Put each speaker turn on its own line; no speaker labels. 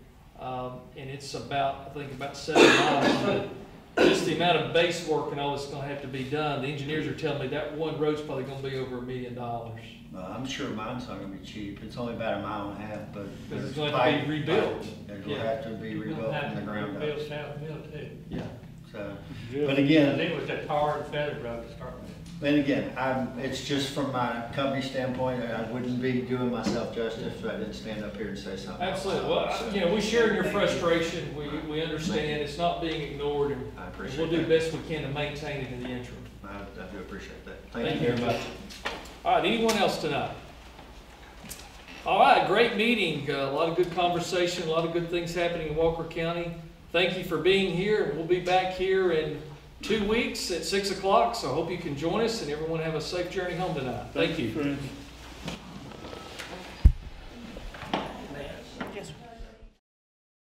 Um, and it's about, I think, about seven miles, but just the amount of base work and all that's gonna have to be done, the engineers are telling me that one road's probably gonna be over a million dollars.
Well, I'm sure mine's not gonna be cheap, it's only about a mile and a half, but.
Because it's going
there's
to
pipe-
be rebuilt.
It'll
Yeah,
have to be
You're
rebuilt
gonna have
from the
to
ground up,
Build South Mill too.
yeah.
so, but again,
It was a tar and feather road to start with.
And again, I'm, it's just from my company standpoint, and I wouldn't be doing myself justice if I didn't stand up here and say something.
Absolutely. Well, I- you know, we share in your frustration. We, we understand. It's not being ignored and
I
we'll
appreciate
do
that.
best we can to maintain it in the interim.
I, I do appreciate that.
Thank you very much. All right, anyone else tonight? All right, great meeting, Uh, a lot of good conversation, a lot of good things happening in Walker County. Thank you for being here. We'll be back here in two weeks at six o'clock, so I hope you can join us and everyone have a safe journey home tonight. Thank you.
friends.